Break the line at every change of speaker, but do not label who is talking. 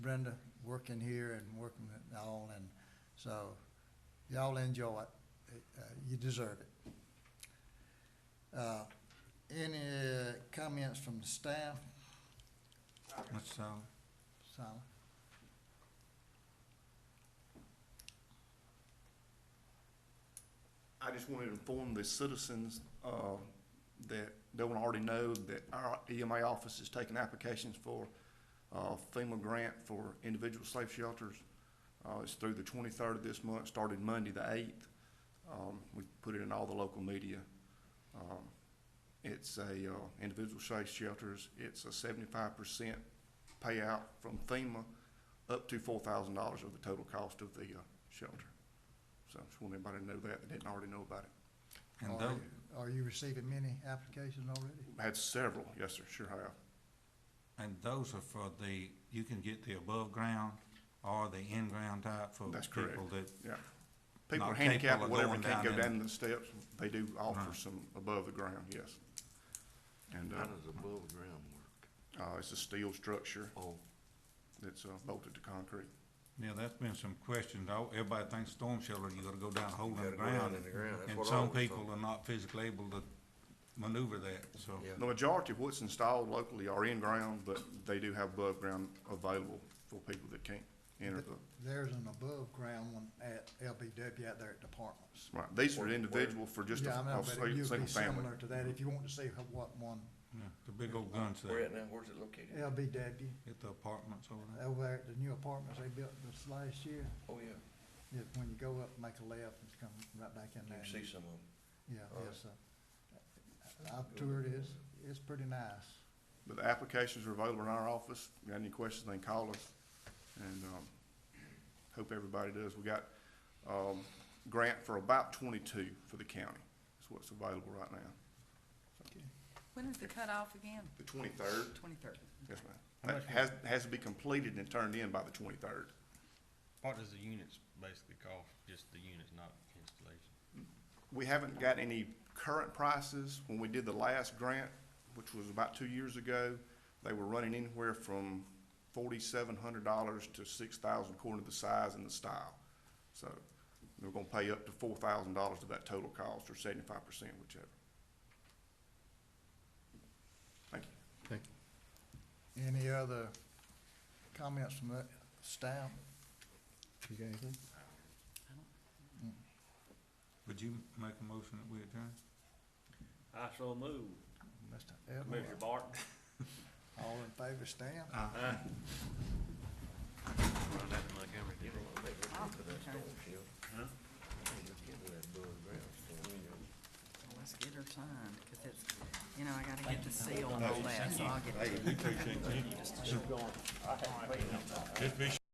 Brenda working here and working it all, and so y'all enjoy it. Uh, You deserve it. Uh, Any uh, comments from the staff?
Mr. Sal,
Sally?
I just wanted to inform the citizens, uh, that they will already know that our EMA office is taking applications for, uh, FEMA grant for individual safe shelters. Uh, it's through the twenty-third of this month, started Monday the eighth. Um, we put it in all the local media. Um, it's a, uh, individual safe shelters, it's a seventy-five percent payout from FEMA up to four thousand dollars of the total cost of the, uh, shelter. So I just want everybody to know that, they didn't already know about it.
and
Are
those,
you- Are you receiving many applications already?
I Had several, yes, sir, sure have.
and those are for the, you can get the above ground or the in-ground type for
That's correct.
people that,
Yeah. People
Not
are handicapped or
capable of
whatever,
going
can't go
down in-
down the steps, they do offer
Right.
some above the ground, yes. And,
How
uh,
does above ground work?
uh, it's a steel structure
Oh,
that's uh, bolted to concrete.
yeah, that's been some questions. Oh, Everybody thinks storm shelter, you gotta go down a hole in the
gotta go down
ground.
in the ground. That's
And
what I
some
always
people
thought.
are not physically able to maneuver that, so.
yeah.
The majority of what's installed locally are in ground, but they do have above ground available for people that can't enter the,
There's an above-ground one at LBW out there at departments.
right, these are
Where-
individual for just a,
Yeah, I know,
a
but
si-
it would
single
be
family.
similar to that if you want to see how- what one,
Yeah, The big old guns
Where
there,
at now? Where's it located?
LBW,
at the apartments over there.
over there at the new apartments they built this last year.
Oh, yeah.
Yeah, when you go up, make a left, and come right back in
You
there.
can see some of
Yeah,
All
yes, uh, I've toured it, it's, it's pretty nice.
But the applications are available in our office. If you Got any questions, they can call us. And, um, hope everybody does. We got, um, grant for about twenty-two for the county. That's what's available right now.
When is the cutoff again?
The twenty-third?
Twenty-third.
Yes, ma'am. That has, has to be completed and turned in by the twenty-third.
What does the units basically cost, just the units, not installation?
We haven't got any current prices. When we did the last grant, which was about two years ago, they were running anywhere from forty-seven hundred dollars to six thousand according to the size and the style. So we're gonna pay up to four thousand dollars of that total cost or seventy-five percent, whichever. Thank you.
Any other comments from the staff? You got anything?
Would you make a motion that we adjourn?
I so move.
Mr. Edmund,
Barton.
all in favor, stand?
Montgomery. You don't wanna make it
I'll
into that
turn.
storm shelter. Huh? Let's get to that above ground storm, you know.
Let's get her Oh, signed, cause it's, you know, I gotta get the seal and all that, so I'll get
Just
it.
be